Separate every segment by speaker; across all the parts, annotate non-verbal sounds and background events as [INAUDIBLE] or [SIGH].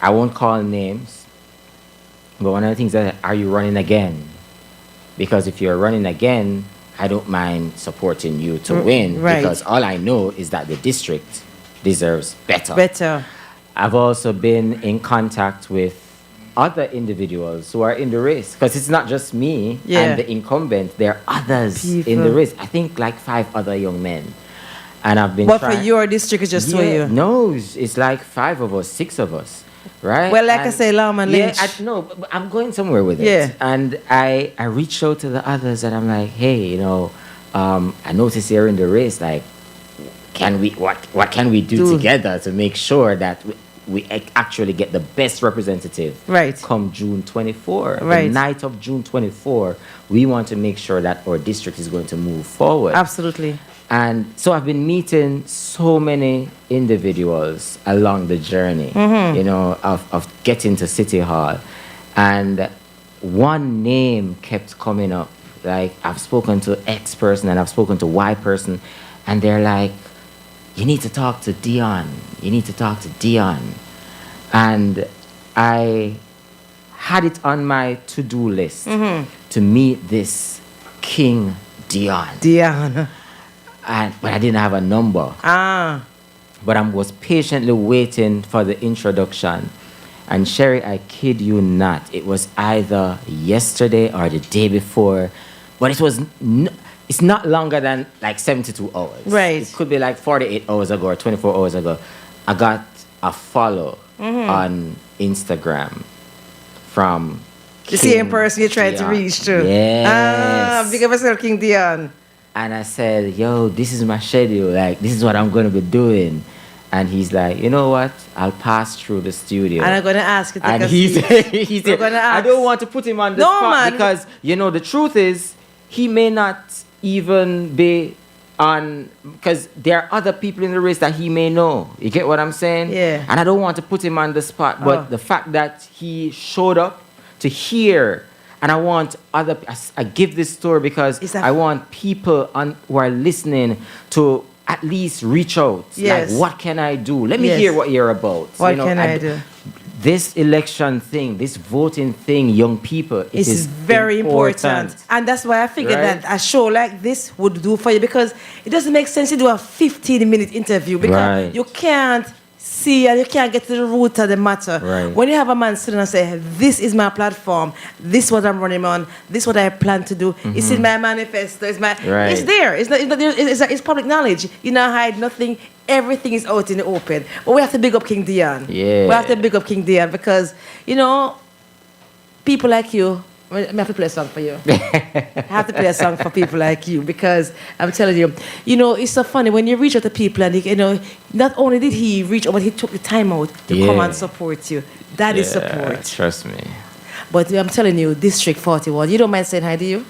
Speaker 1: I won't call names, but one of the things that are you running again? Because if you're running again, I don't mind supporting you to win
Speaker 2: Mm, right.
Speaker 1: because all I know is that the district deserves better.
Speaker 2: Better.
Speaker 1: I've also been in contact with other individuals who are in the race because it's not just me
Speaker 2: Yeah.
Speaker 1: and the incumbent. There are others in the
Speaker 2: People.
Speaker 1: race. I think like five other young men, and I've been.
Speaker 2: But for
Speaker 1: trying-
Speaker 2: your district, it's just for
Speaker 1: Yeah,
Speaker 2: you.
Speaker 1: No, it's, it's like five of us, six of us, right?
Speaker 2: Well, like I say, Lawman
Speaker 1: yeah,
Speaker 2: Lynch.
Speaker 1: I, no, but but I'm going somewhere with it.
Speaker 2: Yeah.
Speaker 1: And I, I reached out to the others and I'm like, hey, you know, um, I noticed here in the race, like, can we, what, what can we do,
Speaker 2: Do.
Speaker 1: together to make sure that we, we ac- actually get the best representative
Speaker 2: Right.
Speaker 1: come June 24? The
Speaker 2: Right.
Speaker 1: night of June 24, we want to make sure that our district is going to move forward.
Speaker 2: Absolutely.
Speaker 1: And so I've been meeting so many individuals along the journey, you know, of, of getting to City Hall. And one name kept coming up. Like, I've spoken to X person and I've spoken to Y person, and they're like, you need to talk to Dion. You need to talk to Dion. And I had it on my to do list to meet this King Dion
Speaker 2: Diana.
Speaker 1: and but I didn't have a number.
Speaker 2: Ah.
Speaker 1: But I was patiently waiting for the introduction. And Sherry, I kid you not, it was either yesterday or the day before, but it was n- it's not longer than like 72 hours.
Speaker 2: Right.
Speaker 1: It could be like 48 hours ago or 24 hours ago. I got a follow
Speaker 2: Mm-hmm.
Speaker 1: on Instagram from
Speaker 2: The
Speaker 1: King
Speaker 2: same person you tried to
Speaker 1: Dion.
Speaker 2: reach to.
Speaker 1: Yes.
Speaker 2: Ah, big up yourself, King Dion.
Speaker 1: And I said, yo, this is my schedule. Like, this is what I'm going to be doing. And he's like, you know what? I'll pass through the studio.
Speaker 2: And I'm going to ask you to take
Speaker 1: And
Speaker 2: a
Speaker 1: he
Speaker 2: seat.
Speaker 1: said, [LAUGHS] he said
Speaker 2: gonna
Speaker 1: I
Speaker 2: ask.
Speaker 1: don't want to put him on the
Speaker 2: No,
Speaker 1: spot
Speaker 2: man.
Speaker 1: because, you know, the truth is, he may not even be on, because there are other people in the race that he may know. You get what I'm saying?
Speaker 2: Yeah.
Speaker 1: And I don't want to put him on the spot, but
Speaker 2: Oh.
Speaker 1: the fact that he showed up to hear, and I want other, I, s- I give this story because
Speaker 2: It's a-
Speaker 1: I want people on, who are listening to at least reach out.
Speaker 2: Yes.
Speaker 1: Like, what can I do? Let me
Speaker 2: Yes.
Speaker 1: hear what you're about.
Speaker 2: What
Speaker 1: You know,
Speaker 2: can
Speaker 1: d-
Speaker 2: I, do?
Speaker 1: this election thing, this voting thing, young people, it
Speaker 2: This
Speaker 1: is
Speaker 2: is very important. And that's why I figured
Speaker 1: Right?
Speaker 2: that a show like this would do for you because it doesn't make sense to do a 15 minute interview because
Speaker 1: Right.
Speaker 2: you can't see and you can't get to the root of the matter.
Speaker 1: Right.
Speaker 2: When you have a man sitting and say, This is my platform, this is what I'm running on, this is what I plan to do, it's in my manifesto, it's my
Speaker 1: Right.
Speaker 2: it's there. It's not, it's, not- it's, it's public knowledge. You know hide nothing. Everything is out in the open. But we have to big up King Dion. We have
Speaker 1: Yeah.
Speaker 2: to big up King Dion because, you know, people like you, I have to play a song
Speaker 1: [LAUGHS]
Speaker 2: for you. I have to play a song for people like you because I'm telling you, you know, it's so funny when you reach out to people and you know, not only did he reach out, but he took the time out to come
Speaker 1: Yeah.
Speaker 2: and support you. That is support.
Speaker 1: Trust me.
Speaker 2: But I'm telling you, District 41, you don't mind saying hi, do you?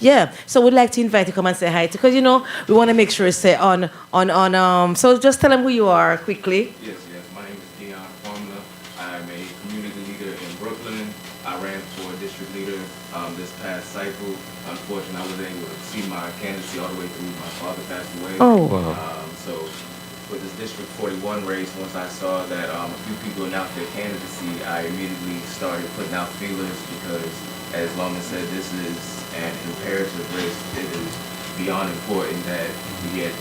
Speaker 2: Yeah, so we'd like to invite you to come and say hi because you know we want to make sure it's say on on on um. So just tell them who you are quickly.
Speaker 3: Yes, yes. My name is Dion Formula. I'm a community leader in Brooklyn. I ran for district leader um, this past cycle. Unfortunately, I was able to see my candidacy all the way through. My father passed away.
Speaker 2: Oh.
Speaker 1: Wow.
Speaker 3: Um, so with this District 41 race, once I saw that um, a few people announced their candidacy, I immediately started putting out feelers because, as Loma said, this is an imperative race. It is beyond important that we get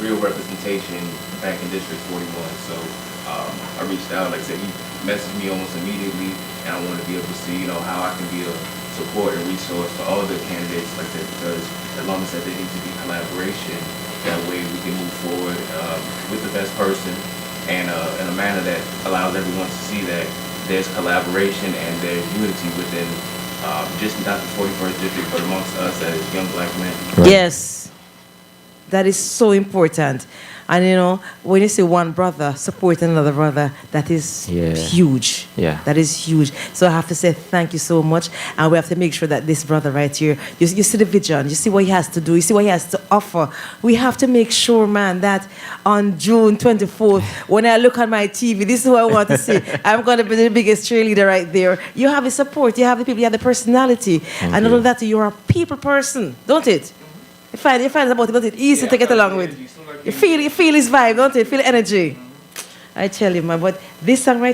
Speaker 3: real representation back in District 41. So um, I reached out, like I said, he messaged me almost immediately, and I wanted to be able to see, you know, how I can be a support and resource for all the candidates, like that, because as long as that there needs to be collaboration, that way we can move forward um, with the best person and uh, in a manner that allows everyone to see that there's collaboration and there's unity within um, just not the 41st district, but amongst us as young black men.
Speaker 1: Right.
Speaker 2: Yes. That is so important. And you know, when you see one brother support another brother, that is
Speaker 1: Yeah.
Speaker 2: huge.
Speaker 1: Yeah.
Speaker 2: That is huge. So I have to say thank you so much. And we have to make sure that this brother right here, you, you see the vision, you see what he has to do, you see what he has to offer. We have to make sure, man, that on June 24th, when I look on my TV, this is what I want
Speaker 1: [LAUGHS]
Speaker 2: to see. I'm going to be the biggest cheerleader right there. You have the support, you have the people, you have the personality. and all
Speaker 1: you.
Speaker 2: of that, you're a people person, don't it? You find, you find about it, don't it? Easy
Speaker 3: Yeah,
Speaker 2: to get
Speaker 3: I
Speaker 2: along
Speaker 3: feel
Speaker 2: with.
Speaker 3: energy. It's not like
Speaker 2: You feel, you feel his vibe, don't it? Feel energy. I tell you, man, but this song right